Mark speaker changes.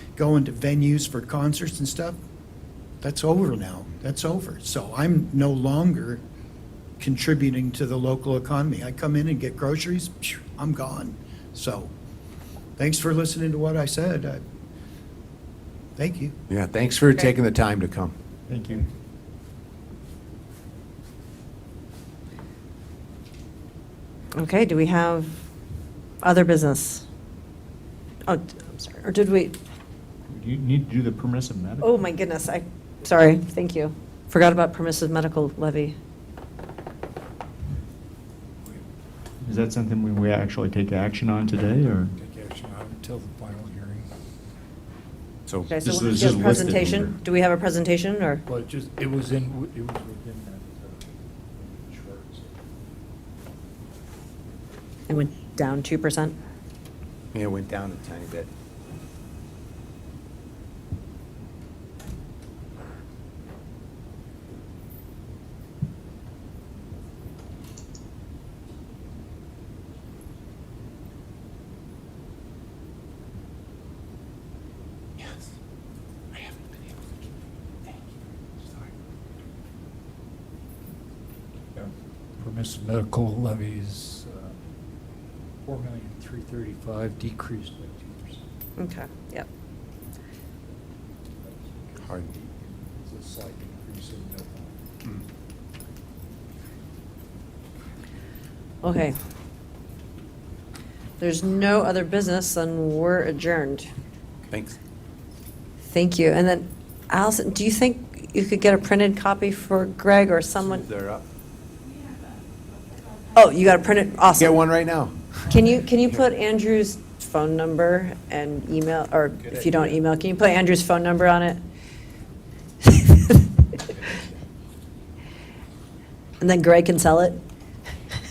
Speaker 1: going to venues for concerts and stuff, that's over now. That's over. So I'm no longer contributing to the local economy. I come in and get groceries, phew, I'm gone. So thanks for listening to what I said. I- Thank you.
Speaker 2: Yeah, thanks for taking the time to come.
Speaker 3: Thank you.
Speaker 4: Okay, do we have other business? Oh, d- I'm sorry, or did we,
Speaker 3: You need to do the permissive medical.
Speaker 4: oh my goodness, I, sorry, thank you. Forgot about permissive medical levy.
Speaker 3: Is that something we- we actually take action on today, or?
Speaker 5: Take action on it until the final hearing.
Speaker 2: So,
Speaker 4: Okay, so
Speaker 3: This
Speaker 4: do you
Speaker 3: is
Speaker 4: have a
Speaker 3: listed
Speaker 4: presentation?
Speaker 3: here.
Speaker 4: Do we have a presentation, or?
Speaker 5: Well, it just, it was in, it was within uh, that chart.
Speaker 4: It went down 2%?
Speaker 2: yeah, it went down a tiny bit. Yes, I haven't been able to. Thank you. Sorry.
Speaker 5: Permissive medical levies, four million, three thirty-five, decreased by two percent.
Speaker 4: Okay, yep.
Speaker 2: Hard.
Speaker 5: It's a slight increase in that.
Speaker 4: Okay. There's no other business, then we're adjourned.
Speaker 2: Thanks.
Speaker 4: Thank you. And then Allison, do you think you could get a printed copy for Greg or someone?
Speaker 2: They're up.
Speaker 4: Oh, you got a printed, awesome.
Speaker 2: Get one right now.
Speaker 4: Can you, can you put Andrew's phone number and email, or if you don't email, can you put Andrew's phone number on it? And then Greg can sell it?